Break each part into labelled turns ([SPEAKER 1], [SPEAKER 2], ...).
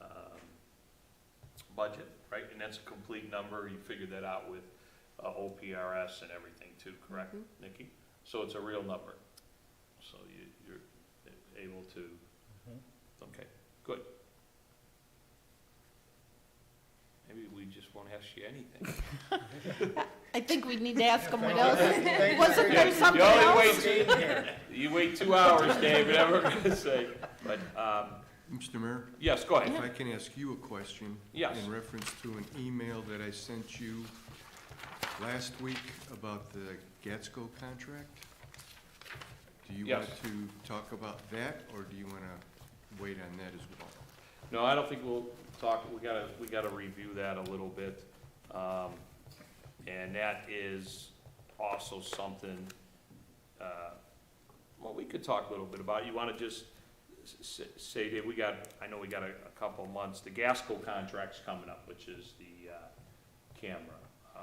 [SPEAKER 1] um, budget, right? And that's a complete number, you figured that out with uh, OPRS and everything too, correct, Nikki? So it's a real number, so you, you're able to, okay, good. Maybe we just won't ask you anything.
[SPEAKER 2] I think we need to ask someone else.
[SPEAKER 3] Thank you
[SPEAKER 2] Wasn't
[SPEAKER 3] for
[SPEAKER 2] there
[SPEAKER 3] your-
[SPEAKER 2] something
[SPEAKER 1] You only
[SPEAKER 2] else?
[SPEAKER 1] wait two- You wait two hours, David, I'm gonna say, but, um,
[SPEAKER 4] Mr. Mayor,
[SPEAKER 1] yes, go
[SPEAKER 4] if
[SPEAKER 1] ahead,
[SPEAKER 4] I can ask you a question.
[SPEAKER 1] Yes.
[SPEAKER 4] In reference to an email that I sent you last week about the Gatsco contract. Do you want
[SPEAKER 1] Yes.
[SPEAKER 4] to talk about that, or do you want to wait on that as well?
[SPEAKER 1] no, I don't think we'll talk, we gotta, we gotta review that a little bit. Um, and that is also something, uh, well, we could talk a little bit about, you wanna just s- s- say that we got, I know we got a, a couple months, the Gasco contract's coming up, which is the, uh, camera, uh,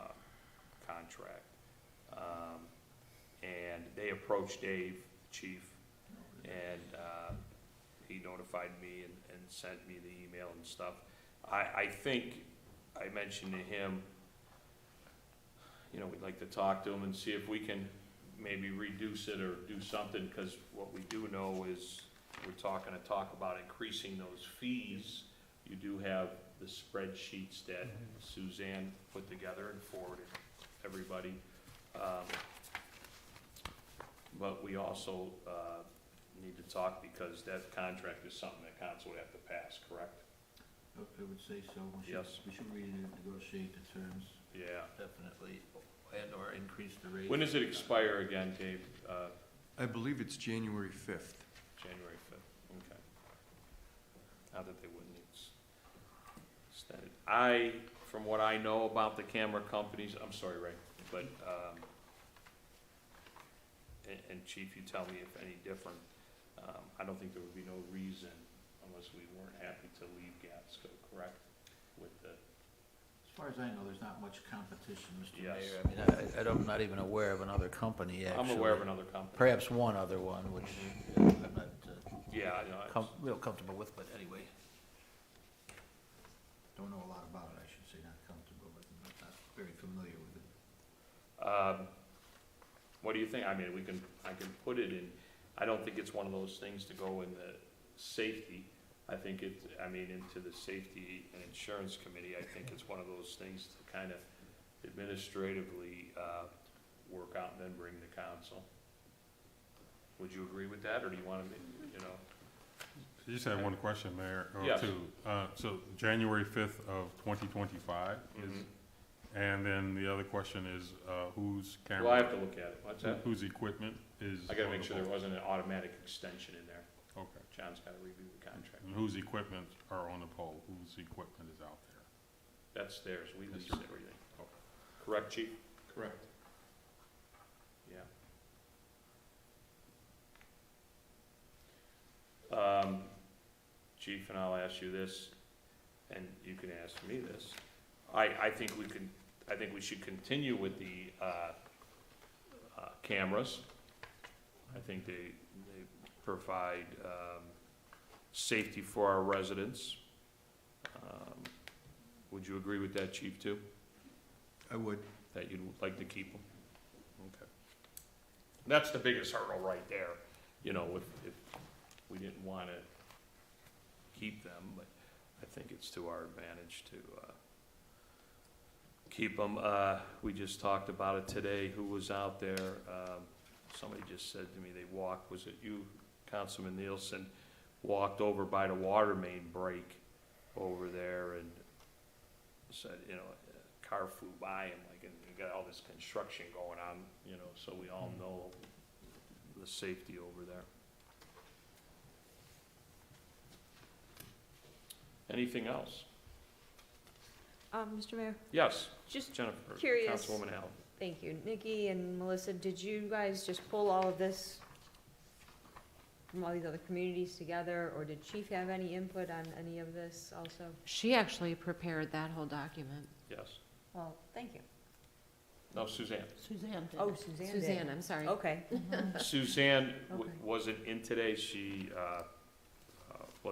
[SPEAKER 1] contract. Um, and they approached Dave, the chief, and, uh, he notified me and, and sent me the email and stuff. I, I think, I mentioned to him, you know, we'd like to talk to him and see if we can maybe reduce it or do something, because what we do know is we're talking to talk about increasing those fees. You do have the spreadsheets that Suzanne put together and forwarded everybody. Um, But we also, uh, need to talk because that contract is something that council would have to pass, correct?
[SPEAKER 3] I would say so. We should-
[SPEAKER 1] Yes.
[SPEAKER 3] We should renegotiate the terms,
[SPEAKER 1] Yeah.
[SPEAKER 3] definitely, and/or increase the rate.
[SPEAKER 1] When does it expire again, Dave? Uh,
[SPEAKER 4] I believe it's January 5th.
[SPEAKER 1] January fifth, okay. Not that they wouldn't, it's extended. I, from what I know about the camera companies, I'm sorry, Ray, but, um, and, and chief, you tell me if any different, um, I don't think there would be no reason unless we weren't happy to leave Gatsco, correct? With the,
[SPEAKER 3] As far as I know, there's not much competition, Mr.
[SPEAKER 1] Yes.
[SPEAKER 3] Mayor. I mean, I, I don't, not even aware of another company,
[SPEAKER 1] I'm
[SPEAKER 3] actually.
[SPEAKER 1] aware of another company.
[SPEAKER 3] Perhaps one other one, which uh, I'm not uh,
[SPEAKER 1] Yeah, I know,
[SPEAKER 3] com- real comfortable with, but anyway. Don't know a lot about it, I should say, not comfortable, but not not very familiar with it.
[SPEAKER 1] Um, What do you think? I mean, we can, I can put it in, I don't think it's one of those things to go in the safety. I think it, I mean, into the safety and insurance committee, I think it's one of those things to kind of administratively, uh, work out and then bring to council. Would you agree with that, or do you wanna, make- you know?
[SPEAKER 5] You just had one question, Mayor, or
[SPEAKER 1] Yes.
[SPEAKER 5] two. Uh, so January fifth of twenty twenty-five is,
[SPEAKER 1] Mhm.
[SPEAKER 5] and then the other question is, uh, whose camera?
[SPEAKER 1] Well, I have to look at it. What's that?
[SPEAKER 5] Whose equipment is?
[SPEAKER 1] I gotta
[SPEAKER 5] on
[SPEAKER 1] make
[SPEAKER 5] the
[SPEAKER 1] sure there
[SPEAKER 5] boat?
[SPEAKER 1] wasn't an automatic extension in there.
[SPEAKER 5] Okay.
[SPEAKER 1] John's gotta review the contract.
[SPEAKER 5] And whose equipment are on the pole? Whose equipment is out there?
[SPEAKER 1] That's theirs. We lease
[SPEAKER 5] That's right.
[SPEAKER 1] everything. Correct, chief?
[SPEAKER 4] Correct.
[SPEAKER 1] Yeah. Um, Chief, and I'll ask you this, and you can ask me this. I, I think we can, I think we should continue with the, uh, uh, cameras. I think they, they provide, um, safety for our residents. Um, Would you agree with that, Chief, too?
[SPEAKER 4] I would.
[SPEAKER 1] that you'd like to keep them? Okay. That's the biggest hurdle right there, you know, if, if we didn't wanna keep them, but I think it's to our advantage to, uh, keep them. Uh, we just talked about it today, who was out there, um, somebody just said to me they walked, was it you, Councilman Nielsen? Walked over by the water main break over there and said, you know, a car flew by and like, and you got all this construction going on, you know, so we all know the safety over there. Anything else?
[SPEAKER 6] Um, Mr. Mayor,
[SPEAKER 1] Yes,
[SPEAKER 6] just,
[SPEAKER 1] Jennifer,
[SPEAKER 6] Curious.
[SPEAKER 1] Councilwoman Allen.
[SPEAKER 6] thank you. Nikki and Melissa, did you guys just pull all of this from all these other communities together, or did Chief have any input on any of this also?
[SPEAKER 2] She actually prepared that whole document.
[SPEAKER 1] Yes.
[SPEAKER 6] Well, thank you.
[SPEAKER 1] No, Suzanne.
[SPEAKER 2] Suzanne
[SPEAKER 6] Oh, Suzanne did.
[SPEAKER 2] Suzanne, I'm sorry.
[SPEAKER 6] Okay,
[SPEAKER 1] Suzanne w-
[SPEAKER 6] Okay.
[SPEAKER 1] wasn't in today. She, uh,